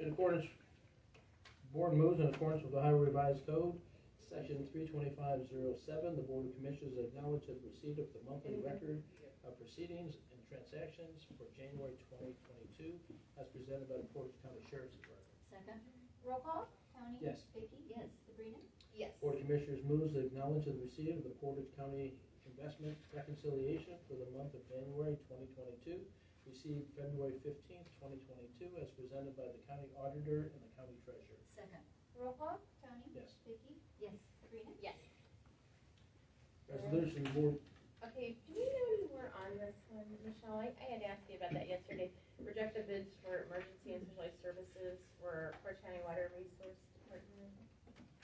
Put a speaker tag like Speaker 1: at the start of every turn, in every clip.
Speaker 1: in accordance, board moves in accordance with Ohio Revised Code, section three twenty-five zero seven, the Board of Commissioners acknowledge the receipt of the monthly record of proceedings and transactions for January twenty twenty-two, as presented by the Portage County Sheriff's Department.
Speaker 2: Second?
Speaker 3: Roll call, Tony?
Speaker 1: Yes.
Speaker 3: Vicky?
Speaker 2: Yes.
Speaker 3: Sabrina?
Speaker 4: Yes.
Speaker 1: Board of Commissioners moves to acknowledge the receipt of the Portage County Investment Reconciliation for the month of January 2022, received February 15th, 2022, as presented by the county auditor and the county treasurer.
Speaker 2: Second?
Speaker 3: Roll call, Tony?
Speaker 1: Yes.
Speaker 3: Vicky?
Speaker 2: Yes.
Speaker 3: Sabrina?
Speaker 4: Yes.
Speaker 1: Resolution Board,
Speaker 4: Okay, do we know you were on this one, Michelle? I, I had asked you about that yesterday. Rejected bids for emergency and specialized services for Portage County Water Resource Department.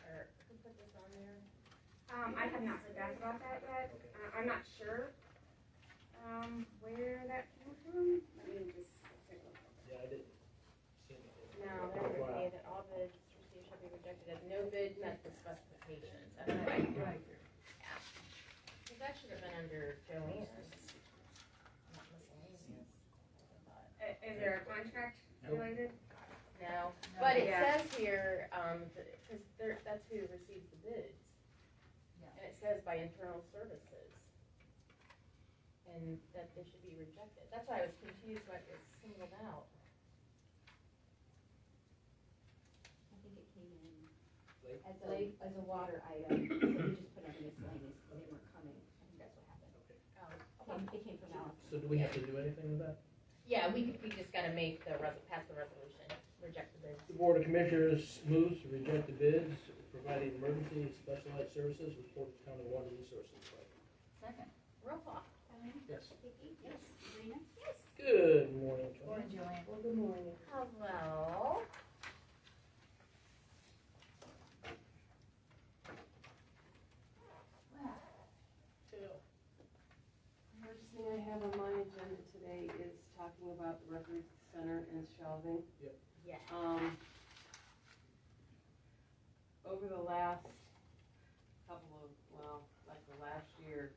Speaker 4: Or who put this on there?
Speaker 5: Um, I have not heard back about that yet. Uh, I'm not sure, um, where that came from. Let me just take a look.
Speaker 1: yeah, I didn't see anything.
Speaker 4: No, that would say that all bids received shall be rejected as no bid met the specifications. That's right.
Speaker 2: Right.
Speaker 4: Well, that should have been under Joanne's. Not miscellaneous. I
Speaker 5: I- Uh, Is there a contract related?
Speaker 4: thought. No, but it
Speaker 5: Yeah.
Speaker 4: says here, um, because there, that's who receives the bids.
Speaker 2: Yeah.
Speaker 4: And it says by internal services. And that they should be rejected. That's why I was confused why it was singled out.
Speaker 2: I think it came in
Speaker 1: Late?
Speaker 2: as a, as a water item, so we just put it in miscellaneous, but they weren't coming, I think that's what happened.
Speaker 4: Oh. Okay.
Speaker 2: It came from Alex.
Speaker 1: So do we have to do anything with that?
Speaker 4: Yeah, we, we just gotta make the, res- pass the resolution, reject the bids.
Speaker 1: The Board of Commissioners moves to reject the bids providing emergency and specialized services with Portage County Water Resources. Department.
Speaker 2: Second?
Speaker 4: Roll call.
Speaker 3: Tony?
Speaker 1: Yes.
Speaker 3: Vicky?
Speaker 2: Yes.
Speaker 3: Sabrina?
Speaker 1: Good morning, Joanne.
Speaker 2: Or Joanne?
Speaker 6: Well, good morning.
Speaker 4: Hello.
Speaker 6: The First thing I have on my agenda today is talking about the record center and shelving.
Speaker 4: Yeah.
Speaker 6: Um, over the last couple of, well, like the last year,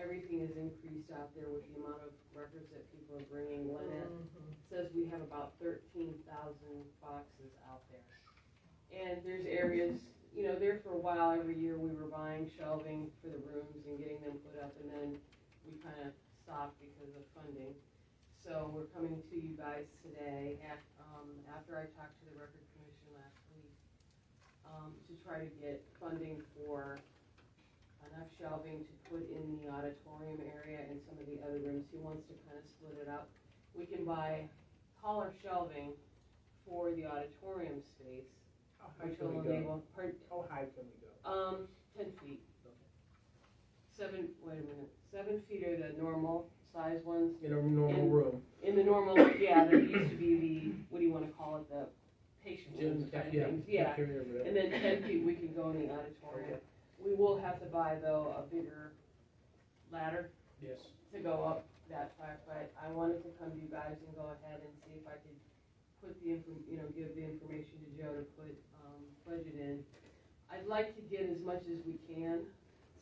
Speaker 6: everything has increased out there with the amount of records that people are bringing in. It Says we have about thirteen thousand boxes out there. And there's areas, you know, there for a while, every year, we were buying shelving for the rooms and getting them put up, and then we kind of stopped because of funding. So we're coming to you guys today, af- um, after I talked to the Record Commission last week, um, to try to get funding for enough shelving to put in the auditorium area and some of the other rooms. He wants to kind of split it up. We can buy taller shelving for the auditorium space,
Speaker 1: How high
Speaker 6: which
Speaker 1: can
Speaker 6: will
Speaker 1: we go?
Speaker 6: enable, pardon,
Speaker 1: How high can we go?
Speaker 6: um, ten feet.
Speaker 1: Okay.
Speaker 6: Seven, wait a minute, seven feet are the normal size ones.
Speaker 1: In a normal
Speaker 6: In-
Speaker 1: room.
Speaker 6: In the normal, yeah, there used to be the, what do you wanna call it, the patient rooms kind of
Speaker 1: Yeah,
Speaker 6: things, yeah.
Speaker 1: cafeteria, whatever.
Speaker 6: And then ten feet, we can go in the auditorium.
Speaker 1: Okay.
Speaker 6: We will have to buy though a bigger ladder
Speaker 1: Yes.
Speaker 6: to go up that far, but I wanted to come to you guys and go ahead and see if I could put the info, you know, give the information to Joe to put, um, budget in. I'd like to get as much as we can,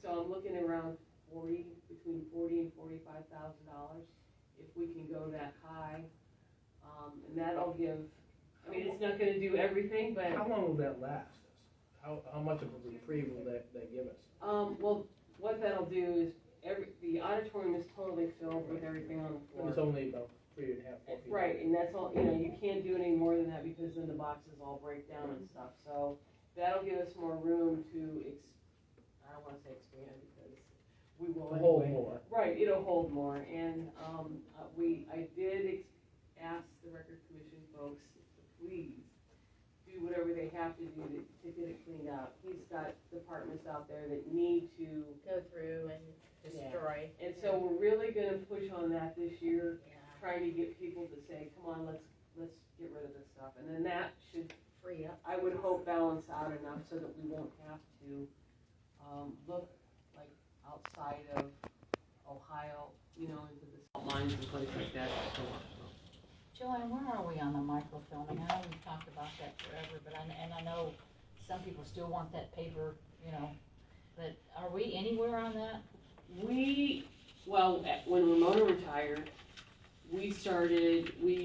Speaker 6: so I'm looking around forty, between forty and forty-five thousand dollars, if we can go that high. Um, and that'll give, I mean, it's not gonna do everything, but
Speaker 1: How long will that last? us? How, how much of a reprieve will that, that give us?
Speaker 6: Um, well, what that'll do is every, the auditorium is totally filled with everything on the
Speaker 1: It's
Speaker 6: floor.
Speaker 1: only about three and a half, four feet.
Speaker 6: Right, and that's all, you know, you can't do any more than that because then the boxes all break down and stuff, so that'll give us more room to ex, I don't wanna say expand because we
Speaker 1: A
Speaker 6: will
Speaker 1: whole
Speaker 6: anyway.
Speaker 1: more.
Speaker 6: Right, it'll hold more, and, um, uh, we, I did ex- ask the record commission folks, to please, do whatever they have to do to, to get it cleaned out. He's got departments out there that need to
Speaker 4: Go through and destroy.
Speaker 6: And so we're really gonna push on that this year,
Speaker 4: Yeah,
Speaker 6: trying to get people to say, come on, let's, let's get rid of this stuff. And then that should,
Speaker 4: free up.
Speaker 6: I would hope balance out enough so that we won't have to, um, look like outside of Ohio, you know, into the salt mines and places like that. so, so.
Speaker 2: Joanne, where are we on the microfilming? I know we've talked about that forever, but I, and I know some people still want that paper, you know, but are we anywhere on that?
Speaker 6: We, well, at- when Ramona retired, we started, we